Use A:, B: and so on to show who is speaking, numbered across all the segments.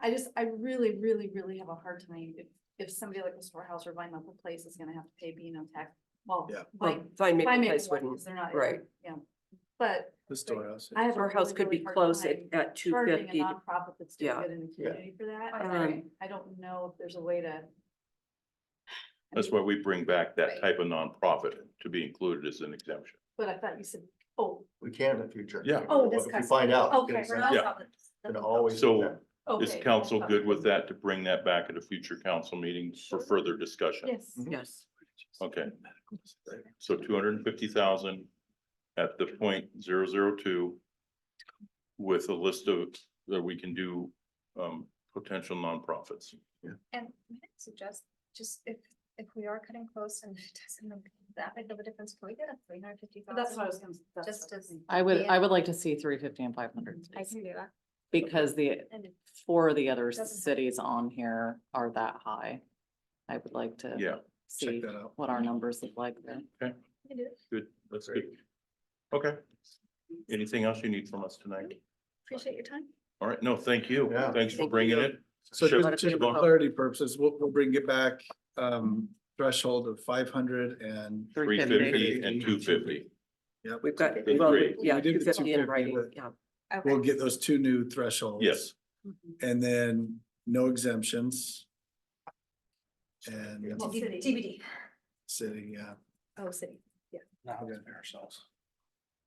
A: I just, I really, really, really have a hard time if, if somebody like a storehouse or Vine Maple Place is gonna have to pay B and O tax. Well,
B: Yeah.
C: Well,
A: Vine,
C: Vine
A: Vine
C: Maple
A: Maple
C: Place
A: Place
C: wouldn't.
A: they're not.
C: right.
A: Yeah, but
B: The storehouse.
A: I have. a
C: Our house
A: really,
C: could
A: really
C: be
A: hard
C: close at,
A: time
C: at two
A: Charging a
C: fifty.
A: nonprofit that's doing
C: Yeah.
A: good in the
B: Yeah.
A: community for that. I
C: Um,
A: I don't know if there's a way to. I
D: That's
A: mean,
D: why we bring back
A: Right.
D: that type of nonprofit to be included as an exemption.
A: But I thought you said, oh,
B: We can in the future.
D: Yeah.
A: Oh,
B: If we
A: discuss it.
B: Find out.
A: okay.
B: it's
A: we're
B: not-
A: not
D: Yeah.
A: solid.
B: Can always.
D: So-
B: yeah.
D: Is
A: Okay. Oh.
D: council good with that to bring that back at a future council meeting for
A: Sure.
D: further discussion?
E: mm.
A: Yes.
B: Mhm.
C: Yes,
D: Okay. So two hundred and fifty thousand at the point zero zero two with a list of, that we can do, um, potential nonprofits.
F: And may I suggest, just if, if we are cutting close and it doesn't make that big of a difference, can we get a three hundred fifty thousand?
A: That's what I was gonna. that's
F: Just
A: what I was
F: as-
A: thinking.
E: I would, I
F: Yeah.
E: would like to see three fifty and five hundred,
F: I can do that.
E: because the,
F: And
E: four of the other
F: Doesn't-
E: cities on here are that high. I would like to.
D: Yeah.
B: Check
E: See
B: that out.
E: what our numbers look like there.
F: we can do it.
D: Good, that's good. Okay. Anything else you need from us tonight?
F: Appreciate your time.
D: All right, no, thank you.
B: Yeah.
D: Thanks for
C: Thank
D: bringing
B: you.
D: it.
B: So
D: Sure.
B: just just for clarity purposes, we'll, we'll bring it back, um, threshold of five hundred and.
D: Three
C: 350.
D: fifty and two fifty.
B: Yep.
C: We've got,
D: Big
C: well,
D: three.
C: yeah,
B: We did
C: two
B: the
C: fifty in
B: 250,
C: writing,
B: but-
C: yeah.
B: We'll get those two new thresholds.
D: Yes.
A: Mm-hmm.
B: And then no exemptions. And
A: Well, city.
F: TBD.
B: city, yeah.
F: Oh, city.
B: Now we're ourselves.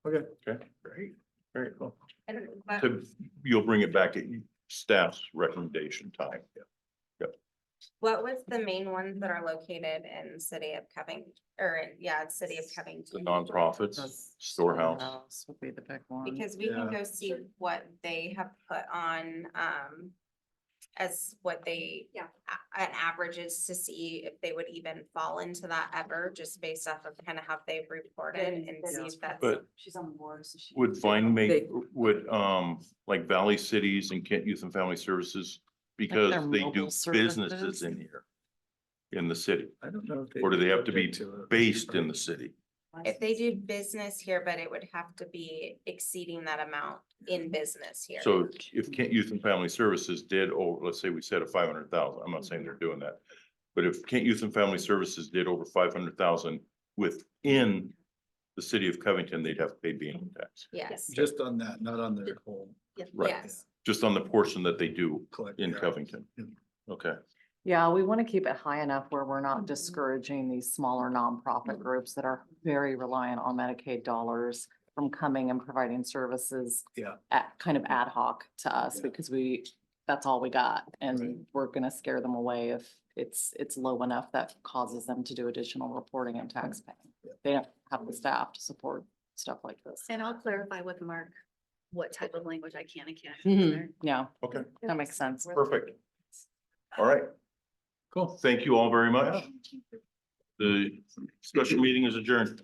B: Okay.
D: Okay.
B: Great.
D: Very cool.
F: I don't know.
E: Uh,
F: but-
D: So You'll bring it back at staff's recommendation time.
G: What was the main ones that are located in city of Covington, or yeah, it's city of
D: The
G: Covington?
D: nonprofits,
E: That's-
D: storehouse.
E: House Would be the big one.
G: Because we can
B: Yeah.
G: go see what they have put on, um, as what they.
F: Yeah.
G: a- An average is to see if they would even fall into that ever, just based off of kind of how they've reported and see if that's.
D: But
A: She's on the board, so she.
D: would Vine make,
C: They-
D: would, um, like Valley Cities and Kent Youth and Family Services, because
E: their
D: they do
E: mobile
D: businesses
E: services?
D: in here, in the city,
B: I don't know. if
D: Or do they have to be
B: object it.
D: based in the city.
G: If they do business here, but it would have to be exceeding that amount in business here.
D: So if Kent Youth and Family Services did, oh, let's say we set a five hundred thousand, I'm not saying they're doing that. But if Kent Youth and Family Services did over five hundred thousand within the city of Covington, they'd have to pay being tax,
G: Yes,
B: Just on that, not on their whole
D: right.
G: yes.
D: just on the portion that they do
B: collect.
D: in
B: yeah.
D: Covington. Okay,
E: Yeah, we want to keep it high enough where we're
A: Mhm.
B: Mm-hmm.
E: not discouraging these smaller nonprofit groups that are very reliant on Medicaid dollars from coming and providing services.
B: Yeah. Mm-hmm.
E: At, kind of ad hoc to us
B: Yeah.
E: because we, that's all we got.
B: Right.
E: And we're going to scare them away if it's, it's low enough that causes them to do additional reporting and tax paying. They don't have the staff to support stuff like this.
A: And I'll clarify with Mark what type of language I can and can't. put in there.
E: Mhm. Yeah,
D: okay,
E: that makes sense.
D: perfect. All right. Cool. Thank you all very much. The special meeting is adjourned.